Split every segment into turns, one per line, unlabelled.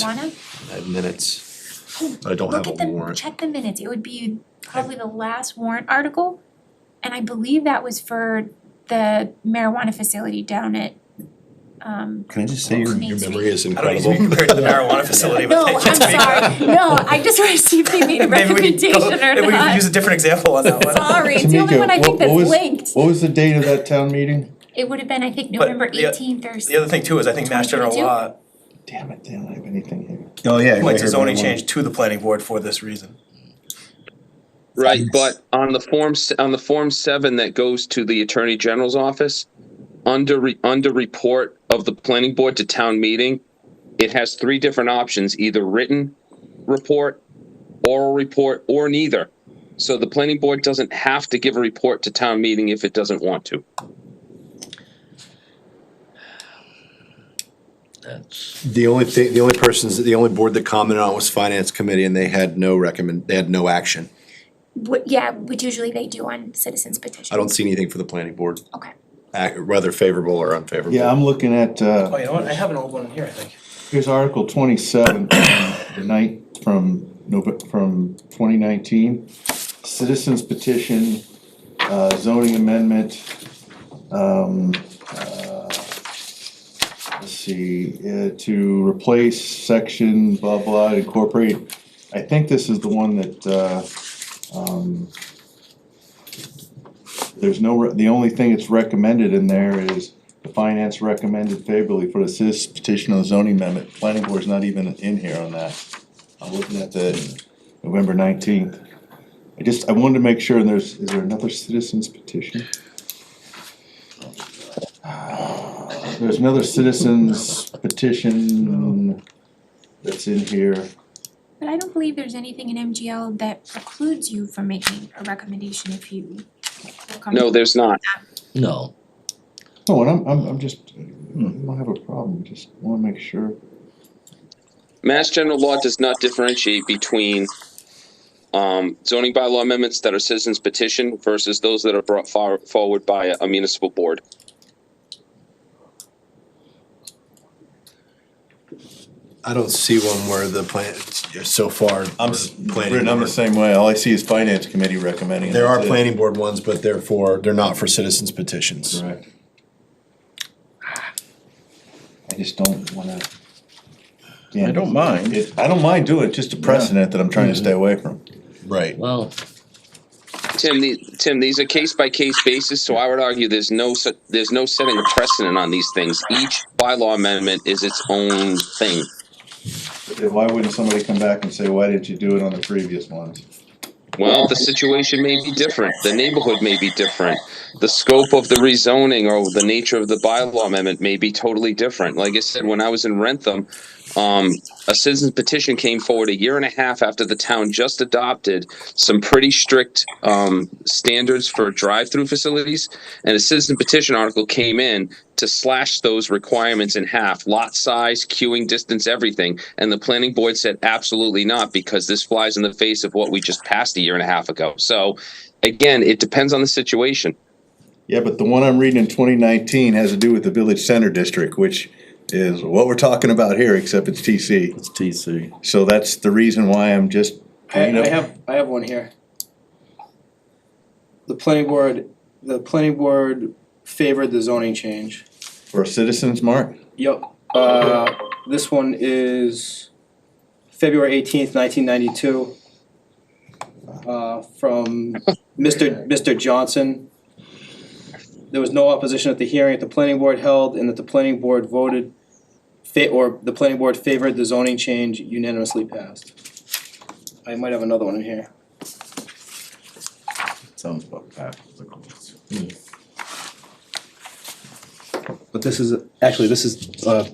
minutes.
marijuana?
I have minutes.
I don't have
Look
a
at the,
warrant.
check the minutes, it would be probably the last warrant article. And I believe that was for the marijuana facility down at, um,
Can I just say your
Main
Your
Street.
memory is
I don't need to be
incredible.
compared to the marijuana facility,
No,
but
I'm
thank you.
sorry, no, I just wanna see if they made a
Maybe we
recommendation
could go,
or not.
maybe we could use a different example on that one.
Sorry, it's the only
Tamika,
one I
what-
think that's
what was-
linked.
What was the date of that town meeting?
It would have been, I think,
But
November
the-
eighteenth or
The other thing too is I think Mass General
2022?
Law
Damn it, they don't have anything here.
Oh, yeah.
points a zoning change to the planning board for this reason.
Right, but on the form, s- on the form seven that goes to the Attorney General's office, under, re- under report of the planning board to town meeting, it has three different options, either written report, oral report, or neither. So the planning board doesn't have to give a report to town meeting if it doesn't want to.
The only thing, the only persons, the only board that commented on was finance committee and they had no recommend, they had no action.
What, yeah, which usually they do on citizens petitions.
I don't see anything for the planning board,
Okay.
ac- whether favorable or unfavorable.
Yeah, I'm looking at,
Oh,
uh,
you know what? I have an old one in here, I think.
here's Article twenty-seven, the night from Nov- from twenty nineteen. Citizens petition, uh, zoning amendment, um, uh, let's see, uh, to replace section blah blah, incorporate. I think this is the one that, uh, um, there's no, re- the only thing that's recommended in there is the finance recommended favorably for the citizen petition on the zoning amendment. Planning board's not even in here on that. I'm looking at the November nineteenth. I just, I wanted to make sure, and there's, is there another citizens petition? There's another citizens petition that's in here.
But I don't believe there's anything in MGL that precludes you from making a recommendation if you. feel
No,
comfortable.
there's not.
No,
No, and I'm, I'm, I'm just, I don't have a problem, just wanna make sure.
Mass general law does not differentiate between um, zoning bylaw amendments that are citizens petition versus those that are brought far, forward by a municipal board.
I don't see one where the plan, so far.
I'm,
we're
s-
planning
Britton, I'm the
board-
same way, all I see is finance committee recommending. it.
There are
That's it.
planning board ones, but therefore they're not for citizens petitions.
Correct. I just don't wanna.
I don't mind. Mm-hmm.
It- I don't mind doing it, just a precedent that I'm trying to stay away from.
Right.
well,
Tim, the, Tim, these are case by case basis, so I would argue there's no se- there's no setting a precedent on these things. Each bylaw amendment is its own thing.
Then Why wouldn't somebody come back and say, why didn't you do it on the previous ones?
Well, the situation may be different. The neighborhood may be different. The scope of the rezoning or the nature of the bylaw amendment may be totally different. Like I said, when I was in Rentham, um, a citizen's petition came forward a year and a half after the town just adopted some pretty strict um, standards for drive-through facilities, and a citizen petition article came in to slash those requirements in half, lot size, queuing distance, everything. And the planning board said, absolutely not, because this flies in the face of what we just passed a year and a half ago. So again, it depends on the situation.
Yeah, but the one I'm reading in twenty nineteen has to do with the village center district, which is what we're talking about here, except it's TC.
It's TC.
So that's the reason why I'm just.
I,
bringing up-
I have, I have one here. The planning board, the planning board favored the zoning change.
For citizens, Mark?
Yep. Uh, this one is February eighteenth, nineteen ninety-two. Uh, from Mr. Mr. Johnson. There was no opposition at the hearing that the planning board held and that the planning board voted fa- or the planning board favored the zoning change unanimously passed. I might have another one in here.
Sounds about practical.
But this is, actually, this is uh,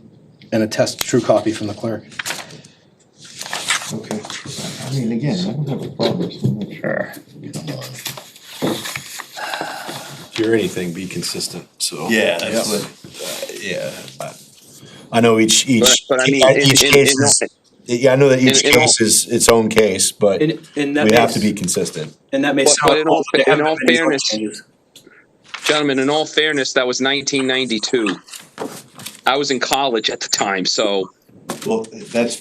an attest true copy from the clerk.
Okay. I mean, again, I don't have a problem, just wanna make sure.
If you're anything, be consistent, so.
Yeah, that's
Yep.
what, uh, yeah.
I know each, each,
But- but I mean, in-
each
in-
case
in-
is, yeah, I know that each
in- in all-
case is its own case, but
And, and that
we have to be
makes,
consistent.
and that
But-
makes.
but in all- in all fairness- Gentlemen, in all fairness, that was 1992. I was in college at the time, so.
Well, that's